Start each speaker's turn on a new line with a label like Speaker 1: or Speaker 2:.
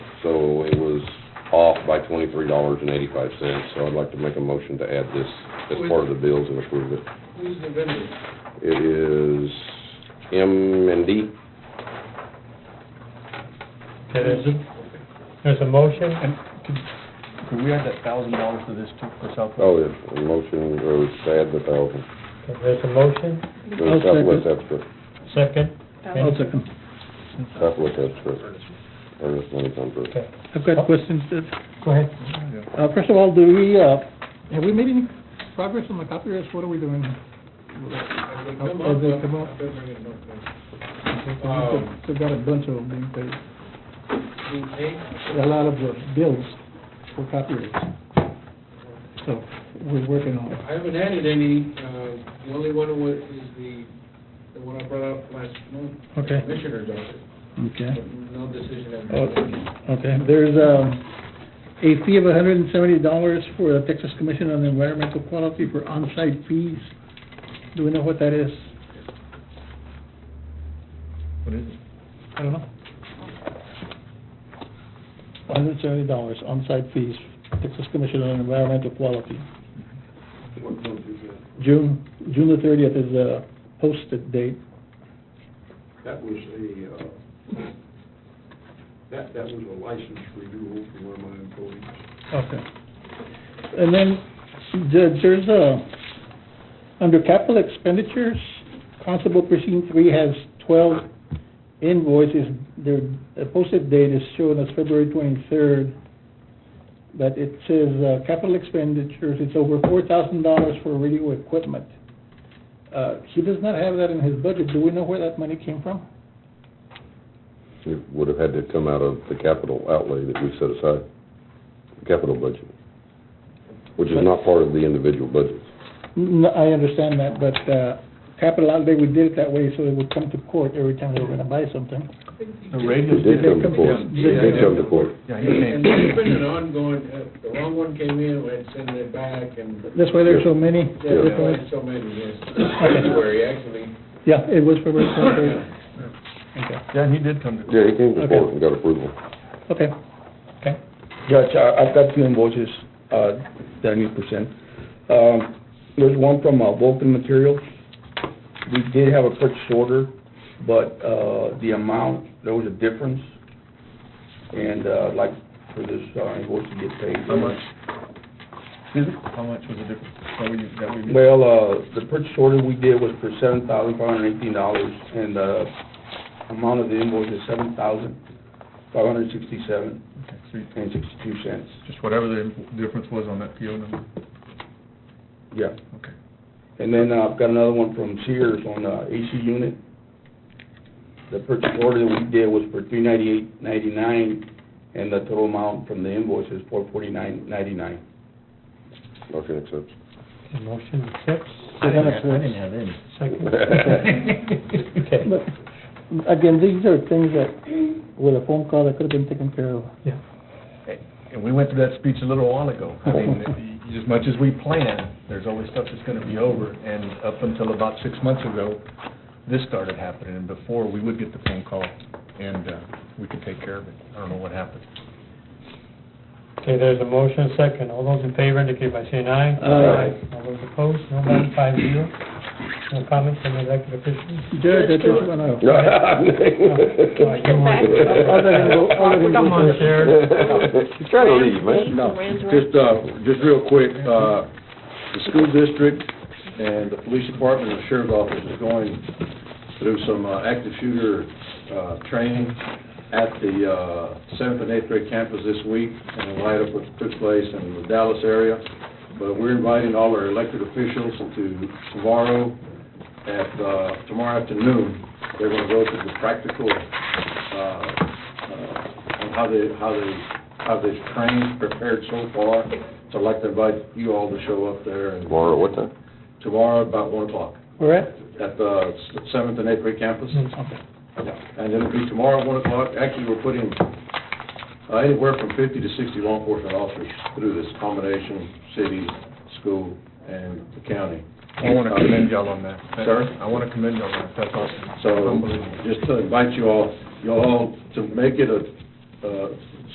Speaker 1: twenty-three dollars and eighty-five cents, so I'd like to make a motion to add this as part of the bills and approve it.
Speaker 2: Who's the vendor?
Speaker 1: It is M and D.
Speaker 3: Okay, There's a, there's a motion,
Speaker 4: And could, could we add that thousand dollars to this too, for Southwest?
Speaker 1: Oh, yeah, a motion, or it's to add the thousand.
Speaker 3: okay, there's a motion,
Speaker 1: The Southwest abstract,
Speaker 3: second,
Speaker 5: Oh.
Speaker 6: I'll second.
Speaker 1: Southwest abstract, earnest money contract.
Speaker 3: okay.
Speaker 6: I've
Speaker 4: Oh.
Speaker 6: got questions. uh,
Speaker 3: Go ahead.
Speaker 6: Uh, first of all, do we, uh, have we made any progress on the copyrights? What are we doing?
Speaker 2: Have they
Speaker 6: Have
Speaker 2: come
Speaker 6: they
Speaker 2: up?
Speaker 6: come up?
Speaker 2: I've been bringing them up there. Um,
Speaker 6: They've got a bunch of them being paid,
Speaker 2: Being paid?
Speaker 6: a lot of the bills for copyrights. So, we're working on it.
Speaker 2: I haven't added any, uh, the only one was, is the, the one I brought up last month. the
Speaker 6: Okay.
Speaker 2: Commissioner's office,
Speaker 6: Okay.
Speaker 2: but no decision has been made.
Speaker 6: Okay, there's, um, a fee of hundred and seventy dollars for the Texas Commission on Environmental Quality for on-site fees. Do we know what that is?
Speaker 4: What is it?
Speaker 6: I don't know. Hundred and seventy dollars on-site fees, Texas Commission on Environmental Quality. June, June the thirtieth is the posted date.
Speaker 7: That was a, uh, that, that was a license renewal for one of my employees.
Speaker 6: Okay. And then, Judge, there's a, under capital expenditures, Constable Precinct Three has twelve invoices. Their the posted date is shown as February twenty-third, but it says, uh, capital expenditures, it's over four thousand dollars for radio equipment. Uh, he does not have that in his budget. Do we know where that money came from?
Speaker 1: It would have had to come out of the capital outlay that we set aside, the capital budget, which is not part of the individual budgets.
Speaker 6: No, I understand that, but, uh, capital outlay, we did it that way, so it would come to court every time they were gonna buy something.
Speaker 4: The radio.
Speaker 1: It did come to court,
Speaker 4: station-
Speaker 1: it did come to court.
Speaker 4: Yeah, he
Speaker 2: And
Speaker 4: came.
Speaker 2: it's been an ongoing, uh, the wrong one came in, we had to send it back, and
Speaker 6: That's why there's so many.
Speaker 1: Yeah.
Speaker 2: Yeah, we've had so many, yes. February, actually.
Speaker 6: Yeah, it was February twenty-third. Okay,
Speaker 4: Yeah, and he did come to.
Speaker 1: Yeah, he came to
Speaker 6: Okay.
Speaker 1: court and got approval.
Speaker 6: okay, okay.
Speaker 5: Judge, I- I've got two invoices uh, that I need to present. Um, There's one from uh, Vulcan Materials. We did have a purchase order, but uh, the amount, there was a difference, and uh, I'd like for this uh, invoice to get paid.
Speaker 4: How much? Excuse me? How much was the difference? That we, that we.
Speaker 5: Well, uh, the purchase order we did was for seven thousand five hundred eighteen dollars, and the amount of the invoice is seven thousand five hundred sixty-seven
Speaker 4: Okay, so you-
Speaker 5: and sixty-two cents.
Speaker 4: Just whatever the difference was on that PO number,
Speaker 5: Yeah.
Speaker 4: okay.
Speaker 5: And then uh, I've got another one from Sears on the AC unit. The purchase order that we did was for three ninety-eight ninety-nine, and the total amount from the invoice is four forty-nine ninety-nine.
Speaker 1: Motion accepts.
Speaker 3: The Motion accepts.
Speaker 4: have any.
Speaker 3: Second. Okay.
Speaker 6: But, again, these are things that, with a phone call, that could have been taken care of.
Speaker 4: And we went through that speech a little while ago. I mean, as much as we plan, there's always stuff that's gonna be over, and up until about six months ago, this started happening, and before, we would get the phone call, and, uh, we could take care of it. I don't know what happened.
Speaker 3: Okay, there's a motion, second. All those in favor indicate by saying aye.
Speaker 6: Aye.
Speaker 3: All those opposed, no one, five zero. No comments from elected officials?
Speaker 6: Judge, I just wanna,
Speaker 1: Can
Speaker 3: we get back Come on, Sheriff.
Speaker 1: She's trying to leave, man.
Speaker 7: No, just, uh, just real quick, uh, the school district and the police department and the sheriff's office is going through some uh, active shooter, uh, training at the, uh, seventh and eighth grade campus this week and the light up what took place in the Dallas area. But we're inviting all our elected officials to tomorrow at, uh, tomorrow afternoon. They're gonna go through the practical, uh, uh, on how they, how they how they've trained, prepared so far. So I'd like to invite you all to show up there and
Speaker 1: Laura, what time?
Speaker 7: tomorrow about one o'clock
Speaker 6: we're at,
Speaker 7: at the seventh and eighth grade campus.
Speaker 3: Mm-hmm.
Speaker 6: okay.
Speaker 7: And it'll be tomorrow at one o'clock. Actually, we're putting uh, anywhere from fifty to sixty law enforcement officers through this combination, city, school, and the county.
Speaker 4: I wanna commend y'all on that.
Speaker 7: Sir?
Speaker 4: I wanna commend y'all on that, that's awesome.
Speaker 7: So
Speaker 4: Unbelievable.
Speaker 7: just to invite you all, you all to make it a, uh,